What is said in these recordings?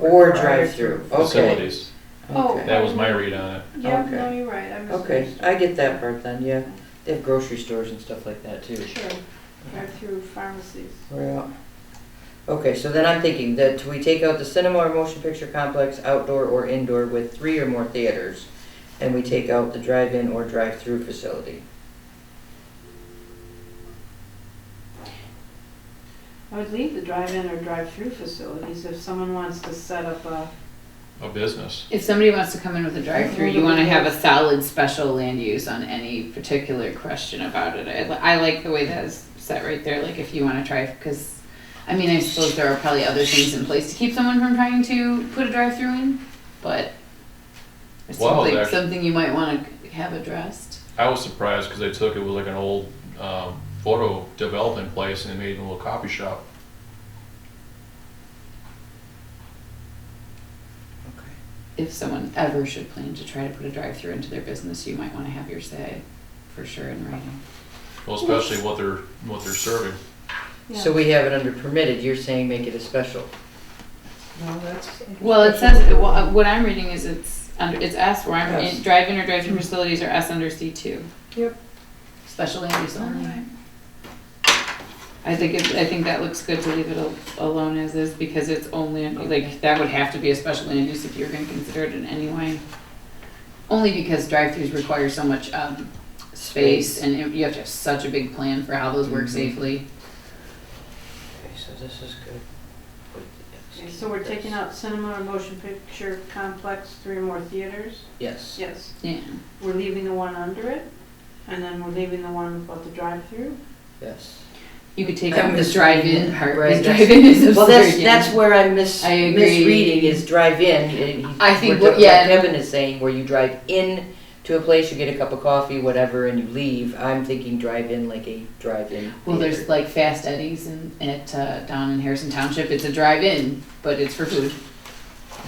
Or drive-through, okay. facilities. Oh. Okay. That was my read on it. Yep, no, Okay. you're right, I Okay, misunderstood. I get that part then, yeah. They have grocery stores and stuff like that too. Sure, drive-through pharmacies. Yeah. Okay, so then I'm thinking that we take out the cinema or motion picture complex, outdoor or indoor with three or more theaters, and we take out the drive-in or drive-through facility. I would leave the drive-in or drive-through facilities if someone wants to set up a, A business. If somebody wants to come in with a drive-through, you want to have a solid special land use on any particular question about it. I, li- I like the way that is set right there. Like if you want to try, because I mean, I suppose there are probably other things in place to keep someone from trying to put a drive-through in, but it's Well, something, there- something you might want to have addressed. I was surprised because they took it with like an old um, photo development place and they made it a little coffee shop. Okay. If someone ever should plan to try to put a drive-through into their business, you might want to have your say for sure in writing. Well, especially what they're what they're serving. So we have it under permitted, you're saying make it a special. No, that's. Well, it says, well, uh, what I'm reading is it's under, it's S where I'm, Yes. in- drive-in or Mm-hmm. drive-through facilities are S under C two. Yep. Special land use only. I think it, I think that looks good to leave it al- alone as is because it's only, like, that would have to be a special land use if you were gonna consider it in any way. Only because drive-throughs require so much, um, space and it- you have to have such a big plan for how those work Mhm. safely. Okay, so this is good. Put the Okay, X so we're this. taking out cinema or motion picture complex, three or more theaters? Yes. Yes, Yeah, we're leaving the one under it, and then we're leaving the one about the drive-through? Yes. you could take I'm out the just- drive-in part, 'cause Right, that's- drive-in is absurd. Well, that's, yeah. that's where I'm mis- I agree. misreading is drive-in. and he- I think we're what- ta- yeah. Like Evan is saying, where you drive in to a place, you get a cup of coffee, whatever, and you leave. I'm thinking drive-in like a drive-in. Well, there's theater. like Fast Eddie's in, at uh, down in Harrison Township. It's a drive-in, but it's for food,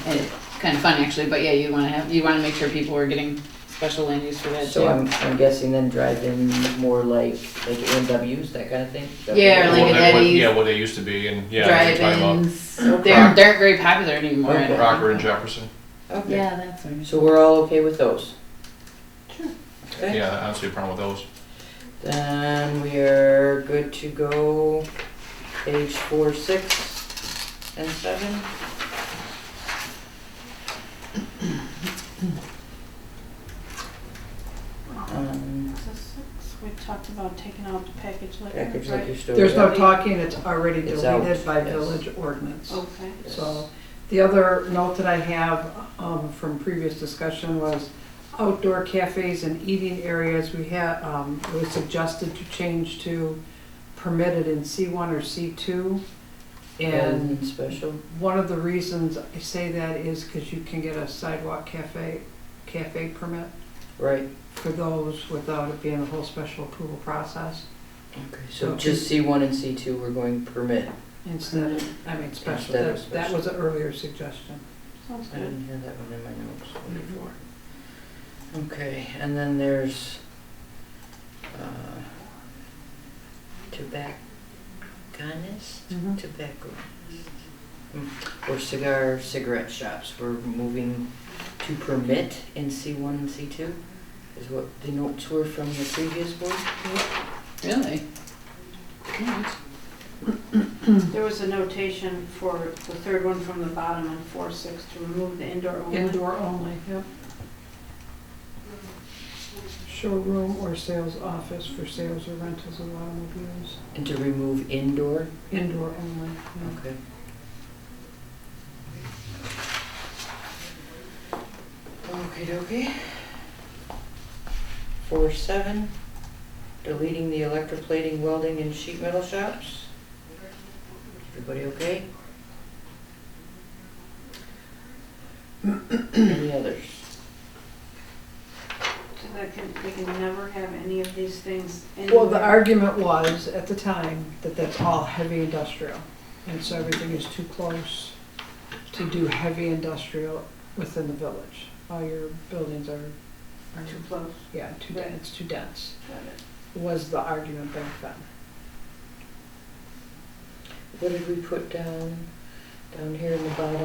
and it's kind of fun actually. But yeah, you want to have you want to make sure people are getting special land use for that So too. I'm, I'm guessing then drive-in more like, like AMWs, that kind of thing? Is that what it Yeah, or is? like What an they- what- Eddie's. Yeah, what they used to be and yeah. that's what you're talking about. Drive-ins. They're they aren't very popular anymore. I don't think. Rocker and Jefferson. Okay, Yeah, that's what I mean. so we're all okay with those? Sure. Okay, Yeah, I don't see a problem with those. then we are good to go, page four, six, and seven? Um, Is this six? We talked about taking out the package liquor, package right? liquor store. There's no talking, it's already It's out, deleted by yes. village ordinance. Okay. Yes. So, the other note that I have um, from previous discussion was outdoor cafes and eating areas, we had, um, it was suggested to change to permitted in C1 or C2. And And special, one of the reasons I say that is because you can get a sidewalk cafe, cafe permit right, for those without it being a whole special approval process okay, so Okay. just C one and C two, we're going permit. instead of, I mean, special. Instead of That that was an earlier suggestion. Sounds I good. didn't have that one in my notes, wonderful. Okay, and then there's, uh, tobacconist, tobacco, mm, or cigar, cigarette shops, we're moving to permit in C one and C two? Is what the notes were from the previous board? Really? Alright. There was a notation for the third one from the bottom on four six to remove the indoor only. Indoor only, yep. Showroom or sales office for sales or rentals of automobiles, And to remove indoor? indoor only. yeah. Okay. Okay, dokie. Four seven, deleting the electroplating welding and sheet metal shops. Everybody okay? Any others? So that can, they can never have any of these things in. Well, the argument was, at the time, that that's all heavy industrial, and so everything is too close to do heavy industrial within the village. All your buildings are, are, Too close. yeah, too, Right. dense. it's too dense, Got it. was the argument back then. What did we put down, down here in the bottom?